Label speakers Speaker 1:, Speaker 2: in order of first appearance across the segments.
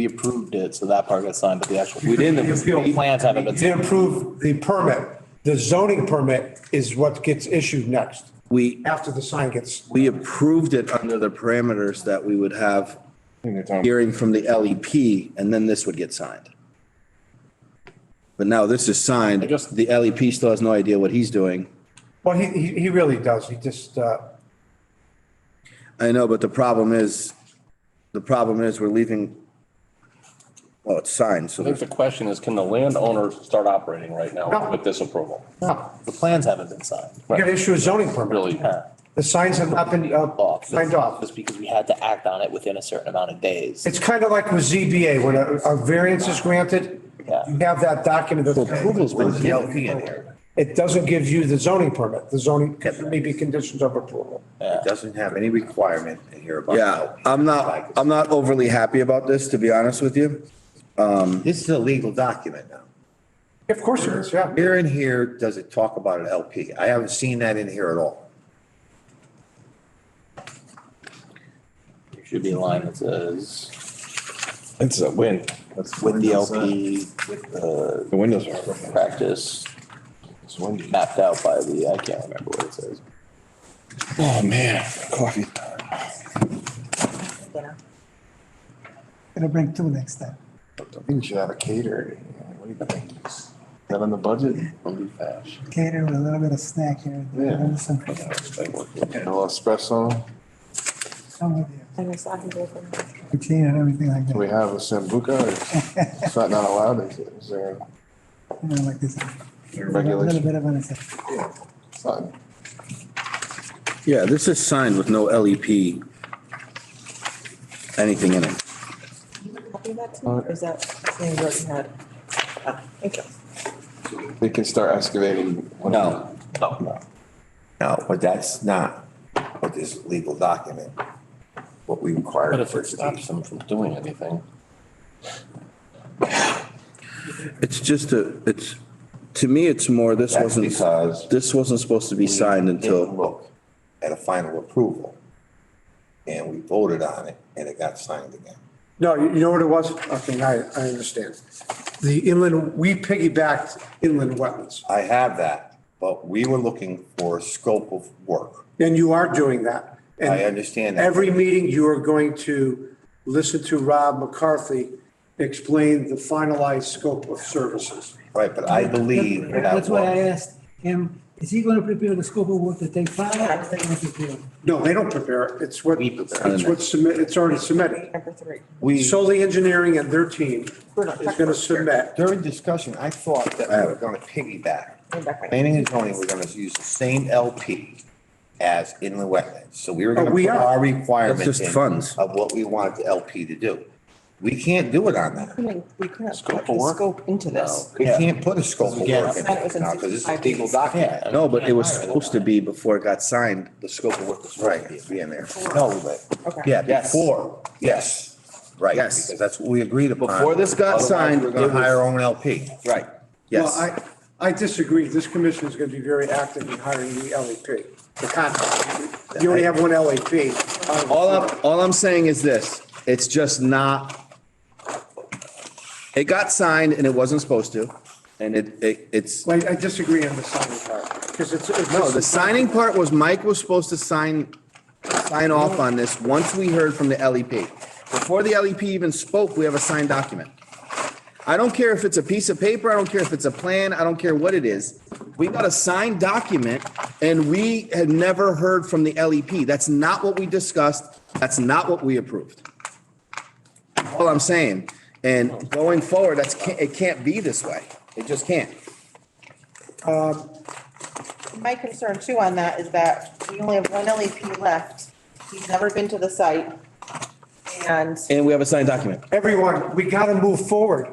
Speaker 1: We approved it, so that part got signed, but the actual, we didn't,
Speaker 2: The appeal-
Speaker 1: the plans haven't
Speaker 2: They
Speaker 1: been.
Speaker 2: approve the permit. The zoning permit is what gets issued next,
Speaker 3: We,
Speaker 2: after the sign gets.
Speaker 3: we approved it under the parameters that we would have
Speaker 4: Here.
Speaker 3: hearing from the LEP, and then this would get signed. But now this is signed,
Speaker 1: just-
Speaker 3: the LEP still has no idea what he's doing.
Speaker 2: Well, he, he he really does. He just, uh,
Speaker 3: I know, but the problem is, the problem is we're leaving, well, it's signed, so
Speaker 5: I think
Speaker 3: there's,
Speaker 5: the question is, can the landowner start operating right now
Speaker 2: No.
Speaker 5: with this approval?
Speaker 2: no,
Speaker 1: The plans haven't been signed.
Speaker 2: you gotta issue a zoning permit.
Speaker 5: Really?
Speaker 1: Yeah.
Speaker 2: The signs have not been uh,
Speaker 1: Off.
Speaker 2: signed off.
Speaker 1: Just because we had to act on it within a certain amount of days.
Speaker 2: It's kind of like with ZBA, when a, a variance is granted,
Speaker 1: Yeah.
Speaker 2: you have that document. that's-
Speaker 3: approval's been DLP in here.
Speaker 2: It doesn't give you the zoning permit. The zoning may be conditions of approval.
Speaker 1: Yeah.
Speaker 4: It doesn't have any requirement in here about.
Speaker 3: yeah, I'm not, I'm not overly happy about this, to be honest with you.
Speaker 4: This is a legal document now.
Speaker 2: Of course it is, yeah.
Speaker 4: Where in here does it talk about an LP? I haven't seen that in here at all.
Speaker 1: It Should be in line that says
Speaker 5: It's a win.
Speaker 1: with the LP, with the
Speaker 5: The windows are.
Speaker 1: practice mapped out by the, I can't remember what it says.
Speaker 5: Oh, man, coffee time.
Speaker 6: It'll bring two next time.
Speaker 7: You should have a caterer. What do you think? Is that on the budget?
Speaker 6: Cater with a little bit of snack here. and there.
Speaker 7: Yeah.
Speaker 6: There's some-
Speaker 7: A little espresso?
Speaker 6: some of the
Speaker 8: And it's not gonna go for me.
Speaker 6: Poutine and everything like
Speaker 7: Do we
Speaker 6: that.
Speaker 7: have a sambuca? or Is that not allowed? Is it- Is there
Speaker 6: You know, like this. A little
Speaker 7: regulation?
Speaker 6: bit of an, it's
Speaker 7: something?
Speaker 3: Yeah, this is signed with no LEP, anything in it.
Speaker 8: Copy that to me, or is that something Jordan had? Ah, Thank you.
Speaker 7: They can start excavating. one-
Speaker 3: No,
Speaker 4: No, but that's not what this legal document, what we require.
Speaker 5: But if it stops them from doing anything,
Speaker 3: it's just a, it's, to me, it's more, this
Speaker 4: That's
Speaker 3: wasn't,
Speaker 4: because-
Speaker 3: this wasn't supposed to be signed
Speaker 4: We
Speaker 3: until.
Speaker 4: Look at a final approval. And we voted on it and it got signed again.
Speaker 2: No, you you know what it was? Okay, I, I understand. The inland, we piggybacked inland wetlands,
Speaker 4: I have that, but we were looking for a scope of work.
Speaker 2: and you are doing that. And
Speaker 4: I understand that.
Speaker 2: Every meeting, you are going to listen to Rob McCarthy explain the finalized scope of services.
Speaker 4: Right, but I believe
Speaker 6: That-
Speaker 4: that
Speaker 6: That's why I
Speaker 4: was,
Speaker 6: asked him, is he gonna prepare the scope of work that they file? or they gonna prepare it?
Speaker 2: No, they don't prepare it. It's what,
Speaker 4: We prepare it.
Speaker 2: it's what's submit, it's already submitted.
Speaker 8: Number three.
Speaker 4: we,
Speaker 2: Solely Engineering and their team
Speaker 8: We're not
Speaker 2: is going
Speaker 8: talking
Speaker 2: to
Speaker 8: about here.
Speaker 2: submit.
Speaker 4: during discussion, I thought that we were gonna piggyback.
Speaker 8: Going back right now.
Speaker 4: Planning and zoning, we're gonna use the same LP as inland wetlands. So we were gonna
Speaker 2: Oh, we
Speaker 4: put
Speaker 2: are.
Speaker 4: our requirements.
Speaker 3: That's just
Speaker 4: in
Speaker 3: funds.
Speaker 4: Of what we wanted the LP to do. We can't do it on that.
Speaker 8: We couldn't- We couldn't
Speaker 5: Scope
Speaker 8: put
Speaker 5: of
Speaker 8: the
Speaker 5: work?
Speaker 8: scope into this.
Speaker 4: We can't put a scope of work
Speaker 3: Again,
Speaker 4: in
Speaker 8: That was
Speaker 4: it
Speaker 8: in
Speaker 4: now because it's a
Speaker 8: 65
Speaker 4: legal
Speaker 8: days.
Speaker 4: document.
Speaker 3: No, but it was supposed to be before it got signed, the scope of work was
Speaker 4: Right,
Speaker 3: right.
Speaker 4: it'd be in there.
Speaker 3: No, but,
Speaker 8: Okay.
Speaker 3: yeah,
Speaker 1: Yes.
Speaker 3: before,
Speaker 4: Yes, right.
Speaker 3: Yes.
Speaker 4: Because that's what we agreed upon.
Speaker 3: Before this got
Speaker 4: Otherwise,
Speaker 3: signed,
Speaker 4: We're gonna
Speaker 3: it was-
Speaker 4: hire our own LP.
Speaker 3: right,
Speaker 2: Well,
Speaker 3: yes.
Speaker 2: I, I disagree. This commission is going to be very active in hiring the LEP, the contract. You only have one E LEP.
Speaker 3: All I'm, all I'm saying is this, it's just not, it got signed and it wasn't supposed to, and it, it, it's,
Speaker 2: Well, I disagree on the signing part, because it's. it's
Speaker 3: no,
Speaker 2: just-
Speaker 3: the signing part was Mike was supposed to sign, sign off on this once we heard from the LEP. Before the LEP even spoke, we have a signed document. I don't care if it's a piece of paper, I don't care if it's a plan, I don't care what it is. We got a signed document and we had never heard from the LEP. That's not what we discussed, that's not what we approved. All I'm saying, and going forward, that's, can't- it can't be this way, it just can't.
Speaker 8: My concern too on that is that we only have one LEP left. He's never been to the site. And
Speaker 3: And we have a signed document.
Speaker 2: Everyone, we got to move forward.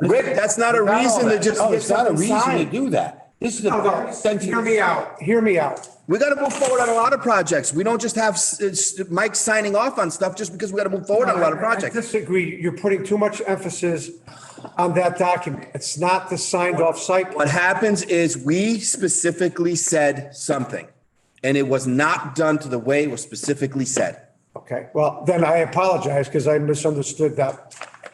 Speaker 3: Rick, that's not a reason to just
Speaker 4: No,
Speaker 3: get
Speaker 4: it's not a
Speaker 3: something
Speaker 4: reason to
Speaker 3: signed.
Speaker 4: do that. This is
Speaker 2: No,
Speaker 4: a
Speaker 2: no, Hear me
Speaker 4: sentence.
Speaker 2: out, hear me out.
Speaker 3: We gotta move forward on a lot of projects. We don't just have s- s- Mike signing off on stuff just because we gotta move forward on a lot of
Speaker 2: I
Speaker 3: projects.
Speaker 2: disagree. You're putting too much emphasis on that document. It's not the signed off site.
Speaker 3: What happens is we specifically said something and it was not done to the way it was specifically said.
Speaker 2: Okay, well, then I apologize because I misunderstood that